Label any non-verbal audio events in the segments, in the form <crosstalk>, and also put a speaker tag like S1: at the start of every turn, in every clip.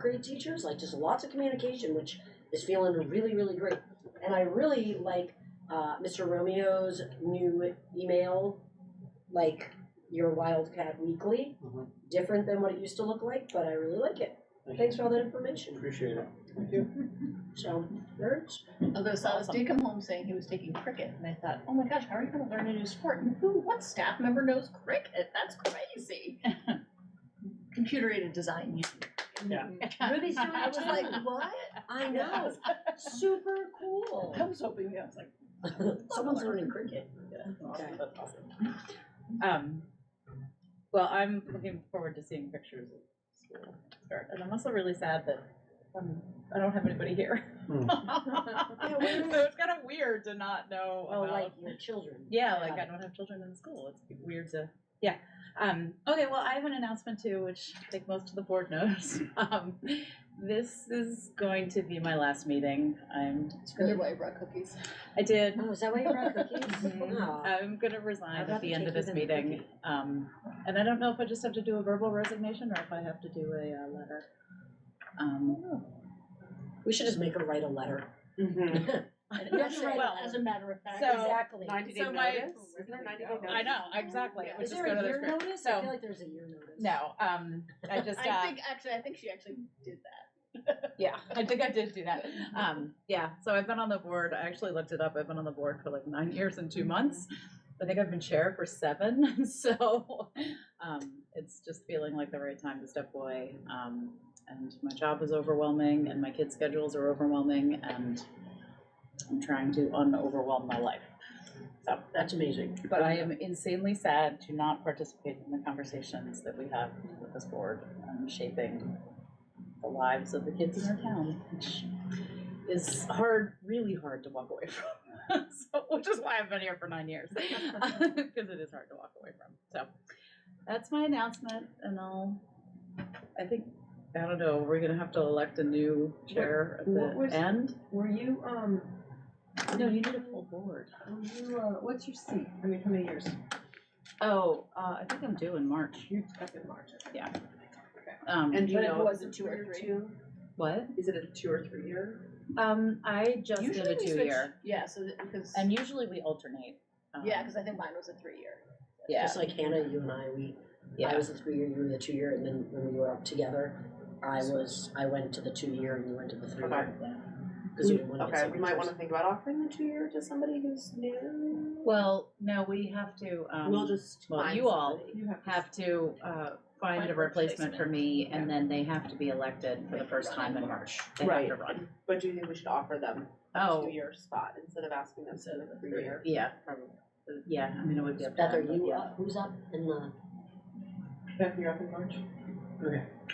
S1: grade teachers, like just lots of communication, which is feeling really, really great. And I really like uh, Mr. Romeo's new email, like your Wildcat Weekly.
S2: Mhm.
S1: Different than what it used to look like, but I really like it. Thanks for all that information.
S2: Appreciate it.
S1: So, nerds.
S3: Although Silas
S4: Awesome.
S3: did come home saying he was taking cricket, and I thought, oh my gosh, how are you going to learn a new sport? And who, what staff member knows cricket? That's crazy. <laughs> Computer aided design. you-
S4: Yeah.
S1: Ruby's doing
S3: I
S1: it
S3: was
S1: too.
S3: like, what?
S1: I know. Super cool.
S4: I was hoping, I was like,
S1: <laughs> Someone's learning cricket.
S4: awesome, that's awesome.
S5: Um, well, I'm looking forward to seeing pictures of school start, and I'm also really sad that um, I don't have anybody here.
S2: Hmm.
S1: where <laughs>
S5: <laughs> so it's kind of weird to not know.
S1: Oh,
S5: about-
S1: like your children.
S5: yeah, like
S1: Got
S5: I
S1: it.
S5: don't have children in school. It's weird to yeah. Um, okay, well, I have an announcement too, which I think most of the board knows. <laughs> Um, this is going to be my last meeting. I'm
S3: It's really why I brought cookies.
S5: I did
S1: Oh, is that why you brought <laughs> cookies?
S5: Mhm.
S1: Wow.
S5: I'm going to
S1: I'd
S5: resign at
S1: rather
S5: the end of
S1: take you
S5: this
S1: than
S5: meeting.
S1: cookie.
S5: Um, and I don't know if I just have to do a verbal resignation or if I have to do a uh, letter. Um,
S1: We should just make her write a letter. <laughs>
S3: <laughs> And
S1: Yes,
S3: actually,
S5: well,
S3: as a matter of fact,
S5: so-
S1: Exactly.
S4: Ninety day
S5: So my-
S4: notice? Isn't there ninety day notice?
S5: I know, exactly.
S3: Yeah.
S5: Which
S1: Is
S5: is
S1: there
S5: go to
S1: a
S5: the
S1: year
S5: script.
S1: notice? I
S5: So-
S1: feel like there's a year notice.
S5: No, um, I just,
S3: I
S5: uh,
S3: think actually, I think she actually did that.
S5: yeah, I think I did do that. Um, yeah, so I've been on the board, I actually looked it up, I've been on the board for like nine years and two months. I think I've been chair for seven, <laughs> so, um, it's just feeling like the right time to step away. Um, and my job is overwhelming and my kids' schedules are overwhelming and I'm trying to un-overwhelm my life.
S3: Oh.
S5: So,
S1: That's amazing.
S5: but I am insanely sad to not participate in the conversations that we have with this board on shaping the lives of the kids in our town, which is hard, really hard to walk away <laughs> from. so, which is why I've been here for nine years, <laughs> because it is hard to walk away from. So that's my announcement, and I'll. I think I don't know. We're gonna have to elect a new chair at
S6: What was-
S5: the end.
S6: Were you, um,
S5: No, you need a full board.
S6: were you, uh, what's your seat? I mean, how many years?
S5: Oh, uh, I think I'm due in March.
S6: You took in March. I think.
S5: Yeah. Um,
S4: And do you
S6: But it
S4: know,
S6: was a two or three.
S5: what?
S6: Is it a two or three year?
S5: Um, I just
S3: Usually
S5: did a
S3: we
S5: two
S3: switch-
S5: year,
S3: Yeah, so that, because,
S5: and usually we alternate. Um,
S3: yeah, because I think mine was a three <laughs> year.
S5: yeah,
S1: Just like Hannah, you and I, we, I
S5: yeah.
S1: was the three year, you were the two year, and then when we were up together, I was, I went to the two year and you went to the three year. Because you didn't want to get
S4: okay, we might
S1: secretaries.
S4: wanna think about offering the two year to somebody who's new.
S5: Well, no, we have to. Um,
S4: We'll just
S5: well,
S4: find
S5: you all
S4: somebody.
S6: You have.
S5: have to uh, find, a replacement for me, and then they have to be elected for the first time in March. They
S4: Right.
S5: have to run.
S4: But do you think we should offer them a
S5: Oh,
S4: two year spot instead of asking them to do a three year?
S5: yeah, probably. Yeah, I mean it would be up to
S1: Beth, are
S5: them, but
S1: you
S5: yeah.
S1: up? Who's up in the?
S6: Beth, you're up in March?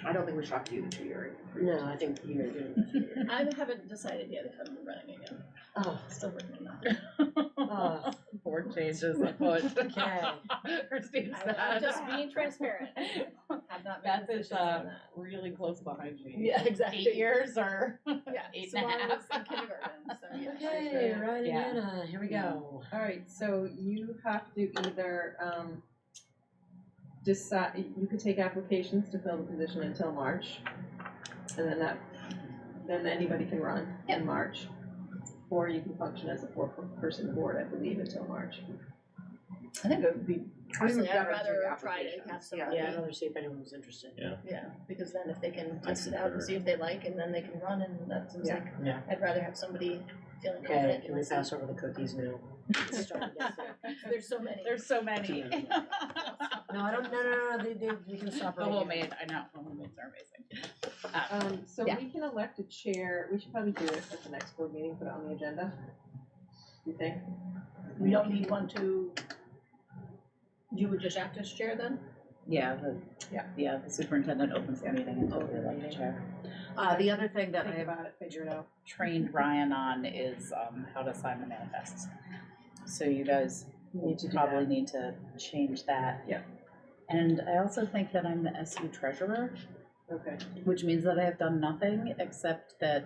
S4: I don't think we should offer you the two year.
S1: No, I think you're doing the two year.
S3: I haven't decided yet if I'm running again.
S1: <laughs> Oh,
S3: Still working on
S5: <laughs>
S1: oh,
S5: Uh, Board changes. unfortunately. <laughs>
S1: okay.
S5: Christine's
S3: that. <laughs> I'm
S5: sad.
S3: just being transparent. <laughs> I've not made
S5: Beth is
S3: decisions
S5: uh,
S3: on that.
S5: really close behind me.
S3: Yeah, exactly.
S5: Eight years or
S3: Yeah,
S5: <laughs> eight
S3: so
S5: and a
S3: I was
S5: half.
S3: in kindergarten,
S5: <laughs>
S3: so yeah.
S1: Okay, right,
S5: Yeah.
S1: Hannah, here we go.
S6: All right, so you have to either, um, decide, you could take applications to fill the position until March. And then that, then anybody can run
S3: Yeah.
S6: in March. Or you can function as a four-person board, I believe, until March.
S3: I think it would be, personally, I'd
S4: better to
S3: rather
S4: do
S3: try to have
S4: applications, yeah.
S3: somebody,
S1: Yeah, I'd rather see if anyone was interested.
S3: yeah, because then if they can
S7: I
S3: test it out and
S7: concur.
S3: see if they like, and then they can run, and that seems
S6: Yeah.
S3: like,
S1: Yeah.
S3: I'd rather have somebody feeling
S1: Okay,
S3: confident.
S1: can we pass over the cookies now? Let's start with this.
S3: There's so many.
S5: There's so many.
S1: Too many.
S5: <laughs>
S1: No, I don't, no, no, no, they, they, we can stop
S5: The
S1: right here.
S5: homemade, I know, the homemades are amazing.
S6: Um, so
S5: Yeah.
S6: we can elect a chair, we should probably do it at the next board meeting, put it on the agenda. You think?
S3: We don't need one to, you would just act as chair then?
S5: Yeah, the,
S6: Yeah.
S5: yeah, the superintendent opens the meeting and totally like the chair. Uh, the other thing that
S6: Think
S5: I've
S6: about it, figure it out.
S5: trained Ryan on is, um, how to sign the manifests. So you guys
S6: Need to do
S5: probably
S6: that.
S5: need to change that.
S6: Yeah.
S5: And I also think that I'm the SU treasurer,
S6: Okay.
S5: which means that I have done nothing except that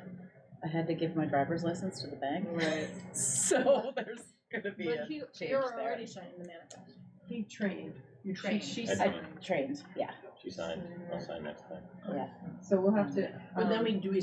S5: I had to give my driver's license to the bank. <laughs>
S6: Right.
S5: So there's gonna be a
S3: But you,
S5: change
S3: you're
S5: there.
S3: already signing the manifest.
S6: He trained.
S3: You trained.
S6: She, she
S7: I
S6: said,
S7: trained.
S5: Trained, yeah.
S8: She signed, I'll sign next time.
S9: Yeah.
S2: So we'll have to.
S6: But then
S2: um,
S6: we, do we